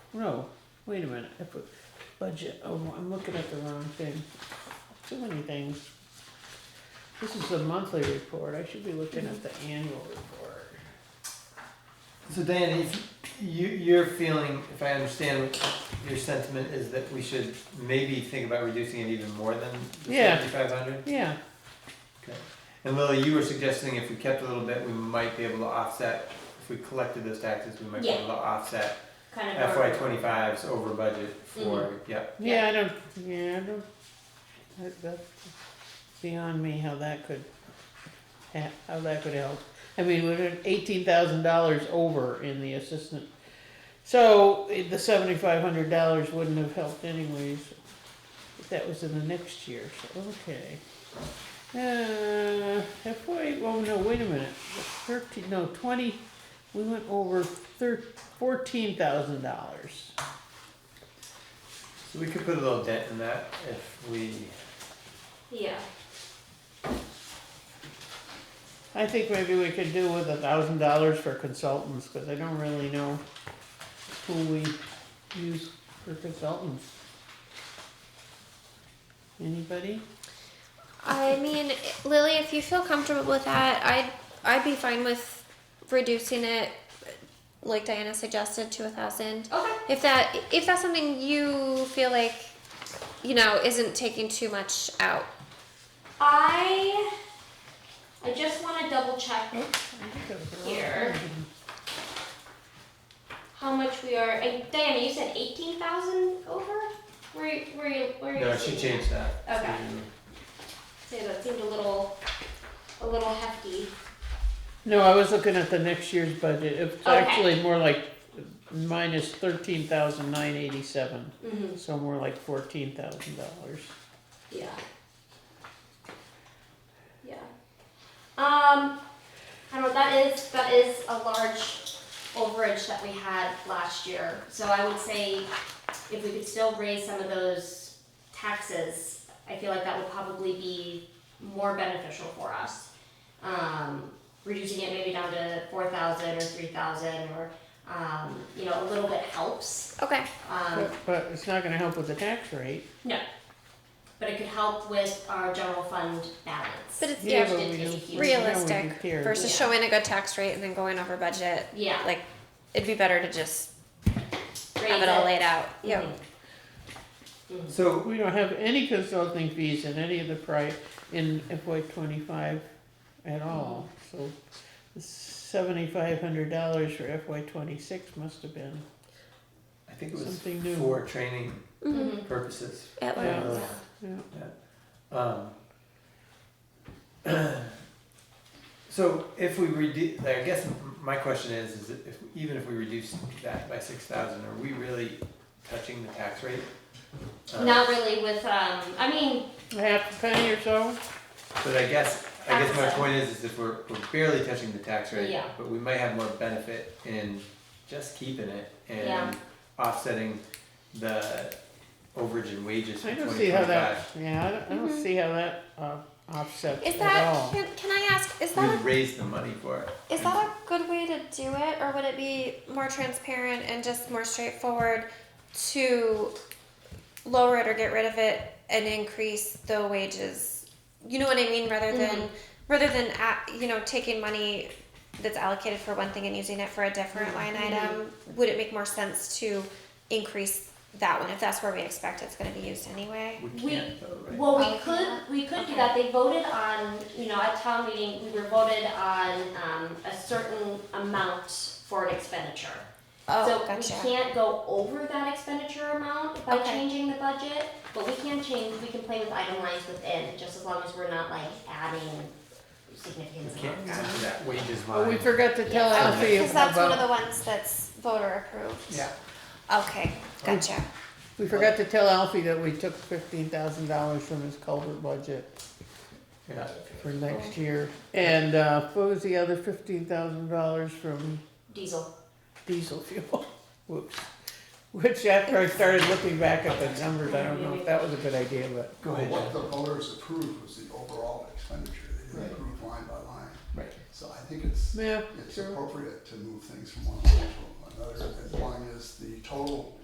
no, wait a minute, I put budget, oh, I'm looking at the wrong thing. Too many things. This is the monthly report, I should be looking at the annual report. So Dan, if you, you're feeling, if I understand what your sentiment is that we should maybe think about reducing it even more than the Yeah. seventy-five hundred? Yeah, And Lily, you were suggesting if we kept a little bit, we might be able to offset, if we collected those taxes, we might be Yeah. able to offset kind of. FY 25s over budget for, Mm-hmm. yeah. yeah, I don't, yeah, I don't, that, that's beyond me how that could, ha- how that could help. I mean, we're eighteen thousand dollars over in the assistant, so eh, the seventy-five hundred dollars wouldn't have helped anyways. If that was in the next year, so, okay. Uh, FY, oh no, wait a minute, thirteen, no, twenty, we went over thir- fourteen thousand dollars. So we could put a little dent in that if we, Yeah. I think maybe we could do with a thousand dollars for consultants, cause I don't really know who we use for consultants. Anybody? I mean, Lily, if you feel comfortable with that, I'd I'd be fine with reducing it, like Diana suggested, to a thousand. Okay. If that if that's something you feel like, you know, isn't taking too much out. I I just want to double check Here. how much we are. I, Diana, you said eighteen thousand over. Were you, were you were you? no, she seeing changed that. that? Okay. Yeah, that seemed a little a little hefty. No, I was looking at the next year's budget, it's Okay. actually more like minus thirteen thousand nine eighty-seven, Mm-hmm. so more like fourteen thousand dollars. Yeah. Yeah. Um, I don't know. That is that is a large overage that we had last year. So I would say if we could still raise some of those taxes, I feel like that would probably be more beneficial for us. Um, reducing it maybe down to four thousand or three thousand or um, you know a little bit helps. Okay. Um, But, but it's not gonna help with the tax rate. no. But it could help with our general fund balance. But it's Yeah, yeah, but but we it's don't- yeah, we realistic do care. versus Yeah. showing a good tax rate and then going over budget. yeah, Like it'd be better to just have raise it all laid out. Yeah. Mhm. So, We don't have any consulting fees in any of the pri, in FY twenty-five at all, so seventy-five hundred dollars for FY twenty-six must have been I think it Something new. was for training Mm-hmm. Mhm. purposes. Uh, At Yeah. Lowe's. Yeah. Mm-hmm. Um, So if we reduce, I guess m- my question is, is if, even if we reduce that by six thousand, are we really touching the tax rate? Um, Not really with, um, I mean, half a penny or so. But I guess, I guess my Absolutely. point is, is if we're, we're barely touching the tax rate, Yeah. but we might have more benefit in just keeping it Yeah. and offsetting the overage in wages I from don't twenty see how twenty-five. that, yeah, I don't, I don't Mhm. see how that, uh, offsets Is at that all. can, can I ask? Is that a We raise the money for it. Is that a good way to do it, or would it be more transparent and just more straightforward to lower it or get rid of it and increase the wages? You know what I mean, rather than Mhm. rather than a- you know taking money that's allocated for one thing and using it for a different line item. Would it make more sense to increase that one if that's where we expect it's going to be used anyway? We We- can't though, right? well, we Oh, could, yeah. we could do that, they voted on, you know, at town meeting, we were voted on, um, a certain amount for an expenditure. Oh, gotcha. So we can't go over that expenditure amount by Okay. changing the budget, but we can change, we can play with item lines within, just as long as we're not like adding significant We can't amounts. add to that wages Oh, we line. forgot to tell Yeah. Alfie Because that's one of the about, ones that's voter approved. Yeah. Okay, gotcha. we forgot to tell Alfie that we took fifteen thousand dollars from his culvert budget. Yeah. for next Oh. year. And uh, what was the other fifteen thousand dollars from Diesel, diesel fuel? Whoops. Which after I started looking back at the numbers, I don't know if that was a good idea, but Go ahead, John. What the voters approved was the overall expenditure, they Right. didn't approve line by line. Right. So I think it's, yeah, it's sure. appropriate to move things from one line to another, as long as the total